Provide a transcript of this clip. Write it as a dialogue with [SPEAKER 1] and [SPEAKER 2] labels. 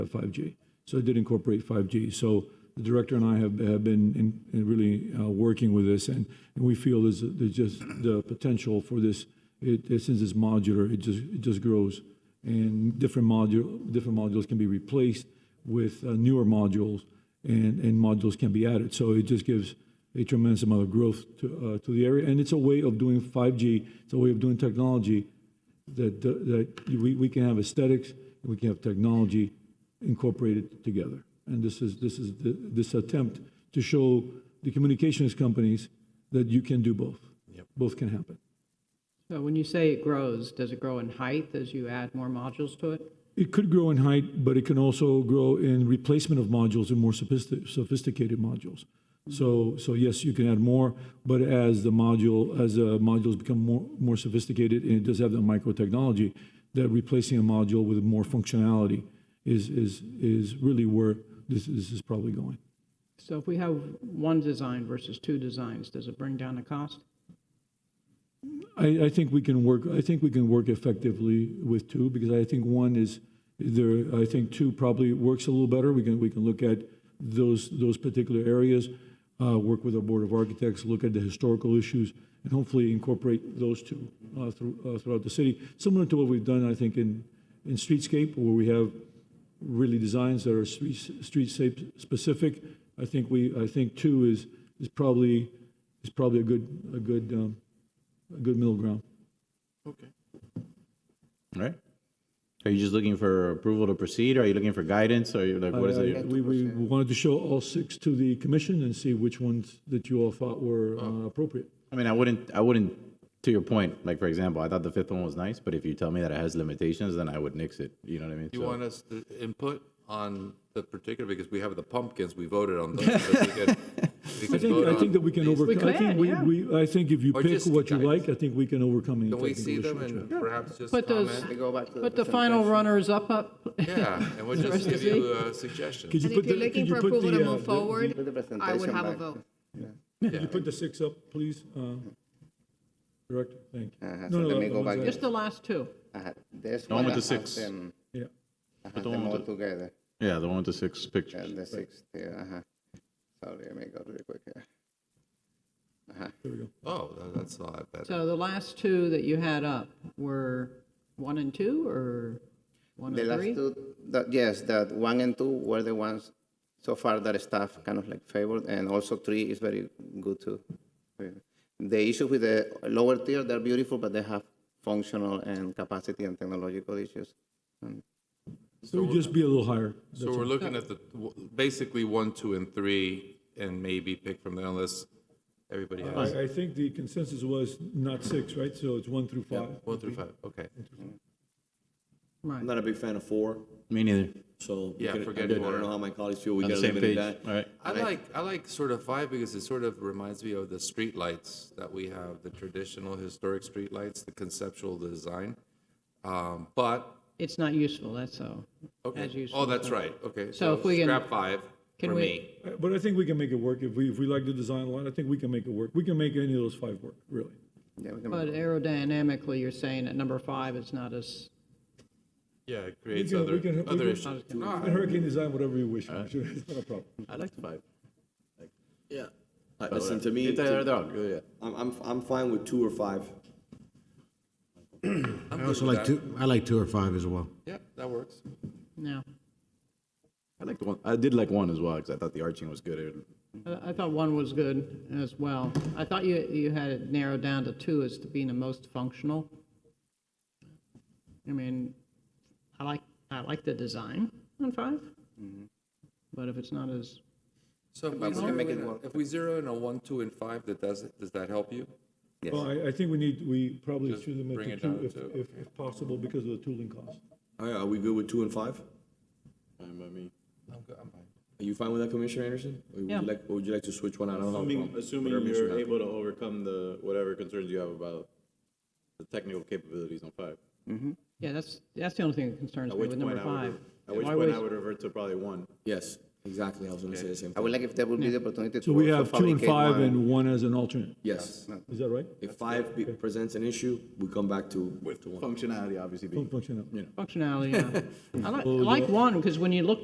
[SPEAKER 1] 5G. So it did incorporate 5G. So the director and I have, have been in, in really uh, working with this, and, and we feel there's, there's just the potential for this. It, it- since it's modular, it just it just grows, and different module different modules can be replaced with uh, newer modules, and and modules can be added. So it just gives a tremendous amount of growth to uh, to the area, and it's a way of doing 5G. It's a way of doing technology that that we, we can have aesthetics, we can have technology incorporated together. And this is this is the, this attempt to show the communications companies that you can do both. Both can happen.
[SPEAKER 2] So when you say it grows, does it grow in height as you add more modules to it?
[SPEAKER 1] It could grow in height, but it can also grow in replacement of modules and more sophistic, sophisticated modules. So, so yes, you can add more, but as the module, as the modules become more, more sophisticated, and it does have the micro technology, that replacing a module with more functionality is, is, is really where this, this is probably going.
[SPEAKER 2] So if we have one design versus two designs, does it bring down the cost?
[SPEAKER 1] I, I think we can work. I think we can work effectively with two because I think one is there. I think two probably works a little better. We can we can look at those those particular areas, uh, work with our board of architects, look at the historical issues, and hopefully incorporate those two uh, through, uh, throughout the city, similar to what we've done. I think in in streetscape where we have really designs that are street street shape specific. I think we I think two is is probably is probably a good a good. Um, a good middle ground.
[SPEAKER 3] All right. Are you just looking for approval to proceed? Are you looking for guidance? Are you like, what is
[SPEAKER 1] Uh,
[SPEAKER 3] it?
[SPEAKER 1] We, we wanted to show all six to the commission and see which ones that you all thought were
[SPEAKER 4] Oh.
[SPEAKER 1] uh, appropriate.
[SPEAKER 3] I mean, I wouldn't, I wouldn't, to your point, like, for example, I thought the fifth one was nice, but if you tell me that it has limitations, then I would nix it. You know what I mean?
[SPEAKER 4] You
[SPEAKER 3] So-
[SPEAKER 4] want us to input on the particular, because we have the pumpkins, we voted on those. but we can- we
[SPEAKER 1] I
[SPEAKER 4] can
[SPEAKER 1] think,
[SPEAKER 4] vote
[SPEAKER 1] I think
[SPEAKER 4] on
[SPEAKER 1] that we can
[SPEAKER 4] these.
[SPEAKER 1] overcome, I think
[SPEAKER 2] could,
[SPEAKER 1] we,
[SPEAKER 2] yeah.
[SPEAKER 1] we, I think if you
[SPEAKER 4] Or
[SPEAKER 1] pick
[SPEAKER 4] just
[SPEAKER 1] what you
[SPEAKER 4] guidance.
[SPEAKER 1] like, I think we can overcome any
[SPEAKER 4] Can we
[SPEAKER 1] technical
[SPEAKER 4] see them
[SPEAKER 1] issues.
[SPEAKER 4] and perhaps just
[SPEAKER 2] Put those,
[SPEAKER 4] comment?
[SPEAKER 2] put the final runners up, up.
[SPEAKER 4] Yeah, and we'll just give you uh, suggestions.
[SPEAKER 1] Could you
[SPEAKER 5] And
[SPEAKER 1] put
[SPEAKER 5] if you're
[SPEAKER 1] the- could
[SPEAKER 5] looking
[SPEAKER 1] you
[SPEAKER 5] for
[SPEAKER 1] put
[SPEAKER 5] approval
[SPEAKER 1] the,
[SPEAKER 5] to
[SPEAKER 1] uh,
[SPEAKER 5] move
[SPEAKER 1] the-
[SPEAKER 5] forward,
[SPEAKER 6] Put the
[SPEAKER 5] I would
[SPEAKER 6] presentation
[SPEAKER 5] have a
[SPEAKER 6] back.
[SPEAKER 5] vote.
[SPEAKER 1] Could you put the six up, please, uh, Director? Thank you.
[SPEAKER 6] Uh-huh,
[SPEAKER 1] No,
[SPEAKER 6] so
[SPEAKER 1] no,
[SPEAKER 6] let me
[SPEAKER 1] no,
[SPEAKER 6] go
[SPEAKER 1] no,
[SPEAKER 6] back
[SPEAKER 1] no,
[SPEAKER 6] to-
[SPEAKER 2] Just the last two.
[SPEAKER 6] Uh, This
[SPEAKER 3] The one
[SPEAKER 6] one
[SPEAKER 3] with
[SPEAKER 6] that
[SPEAKER 3] the
[SPEAKER 6] has
[SPEAKER 3] six.
[SPEAKER 6] them,
[SPEAKER 1] Yeah,
[SPEAKER 6] has
[SPEAKER 3] one
[SPEAKER 6] them
[SPEAKER 3] with
[SPEAKER 6] all
[SPEAKER 3] the-
[SPEAKER 6] together,
[SPEAKER 3] Yeah, the one with the six
[SPEAKER 6] uh,
[SPEAKER 3] pictures.
[SPEAKER 6] the sixth here, uh-huh. Sorry, let me go really quick here.
[SPEAKER 1] there we go.
[SPEAKER 4] Oh, tha- that's not bad.
[SPEAKER 2] So the last two that you had up were one and two or one
[SPEAKER 6] The
[SPEAKER 2] and
[SPEAKER 6] last
[SPEAKER 2] three?
[SPEAKER 6] two, that- yes, that one and two were the ones so far that staff kind of like favored, and also three is very good too. The issue with the lower tier, they're beautiful, but they have functional and capacity and technological issues.
[SPEAKER 1] So it would just be a little higher.
[SPEAKER 4] So we're looking at the, w- basically one, two, and three, and maybe pick from there unless everybody has
[SPEAKER 1] Uh, I, I think the consensus was not six, right? So it's one through five.
[SPEAKER 4] one through five, okay.
[SPEAKER 2] Right.
[SPEAKER 7] I'm not a big fan of four,
[SPEAKER 3] Me neither.
[SPEAKER 7] so. we
[SPEAKER 4] Yeah,
[SPEAKER 7] could-
[SPEAKER 4] forget
[SPEAKER 7] I don't- I
[SPEAKER 4] four.
[SPEAKER 7] don't know how my colleagues feel, we
[SPEAKER 3] On the
[SPEAKER 7] gotta
[SPEAKER 3] same
[SPEAKER 7] limit it
[SPEAKER 3] page.
[SPEAKER 7] that.
[SPEAKER 3] All right.
[SPEAKER 4] I like I like sort of five because it sort of reminds me of the street lights that we have, the traditional historic street lights, the conceptual design. Um, but
[SPEAKER 2] It's not useful, that's so. As
[SPEAKER 4] okay,
[SPEAKER 2] useful,
[SPEAKER 4] oh, that's
[SPEAKER 2] so-
[SPEAKER 4] right. Okay,
[SPEAKER 2] So if we can-
[SPEAKER 4] scrap five
[SPEAKER 2] can
[SPEAKER 4] for
[SPEAKER 2] we-
[SPEAKER 4] me.
[SPEAKER 1] Uh, But I think we can make it work. If we, if we like the design a lot, I think we can make it work. We can make any of those five work, really.
[SPEAKER 6] Yeah, we can-
[SPEAKER 2] But aerodynamically, you're saying at number five, it's not as,
[SPEAKER 4] Yeah, it creates
[SPEAKER 1] can- we
[SPEAKER 4] other
[SPEAKER 1] can- we
[SPEAKER 4] other
[SPEAKER 1] can-
[SPEAKER 4] issues.
[SPEAKER 1] You can Hurricane design whatever you wish. Sure, It's not a problem.
[SPEAKER 7] I like five. Yeah. Uh, Listen, to me,
[SPEAKER 3] It's either
[SPEAKER 7] to-
[SPEAKER 3] or, yeah.
[SPEAKER 7] I'm, I'm, I'm fine with two or five.
[SPEAKER 8] I also like two, I like two or five as well.
[SPEAKER 4] Yeah, that works.
[SPEAKER 2] no.
[SPEAKER 3] I liked one, I did like one as well, because I thought the arching was good. It-
[SPEAKER 2] I I thought one was good as well. I thought you, you had it narrowed down to two as to being the most functional. I mean, I like, I like the design on five,
[SPEAKER 3] Mm-hmm.
[SPEAKER 2] but if it's not as,
[SPEAKER 4] So if we, zero in a, if we zero in a one, two, and five, that does it. Does that help you?
[SPEAKER 6] Yes.
[SPEAKER 1] Well, I, I think we need, we probably
[SPEAKER 4] Just
[SPEAKER 1] should have
[SPEAKER 4] bring
[SPEAKER 1] made
[SPEAKER 4] it
[SPEAKER 1] two
[SPEAKER 4] down
[SPEAKER 1] if,
[SPEAKER 4] to-
[SPEAKER 1] if, if possible because of the tooling cost.
[SPEAKER 7] All right, Oh, are we good with two and five? Um, I mean,
[SPEAKER 4] I'm good. I'm fine.
[SPEAKER 7] are you fine with that, Commissioner Anderson? Or would
[SPEAKER 2] Yeah.
[SPEAKER 7] you like, or would you like to switch one out? I don't know.
[SPEAKER 3] Assuming, assuming
[SPEAKER 7] Whatever makes you
[SPEAKER 3] you're
[SPEAKER 7] happy.
[SPEAKER 3] able to overcome the, whatever concerns you have about the technical capabilities on five.
[SPEAKER 2] yeah, that's, that's the only thing that concerns
[SPEAKER 3] At
[SPEAKER 2] me
[SPEAKER 3] which
[SPEAKER 2] with
[SPEAKER 3] point
[SPEAKER 2] number
[SPEAKER 3] I would,
[SPEAKER 2] five.
[SPEAKER 3] re- at which
[SPEAKER 2] Why
[SPEAKER 3] point
[SPEAKER 2] was-
[SPEAKER 3] I would revert to probably one.
[SPEAKER 7] Yes, Exactly, I was gonna say the same
[SPEAKER 6] I would
[SPEAKER 7] thing.
[SPEAKER 6] like if there would be the opportunity to.
[SPEAKER 1] So we
[SPEAKER 6] also
[SPEAKER 1] have two and
[SPEAKER 6] fabricate
[SPEAKER 1] five
[SPEAKER 6] one.
[SPEAKER 1] and one as an alternate.
[SPEAKER 7] Yes,
[SPEAKER 1] Is that right?
[SPEAKER 7] if five be- presents an issue, we come back to, to one.
[SPEAKER 3] Functionality obviously being
[SPEAKER 1] Function out.
[SPEAKER 2] Functionality, yeah. I like, I like one, because when you look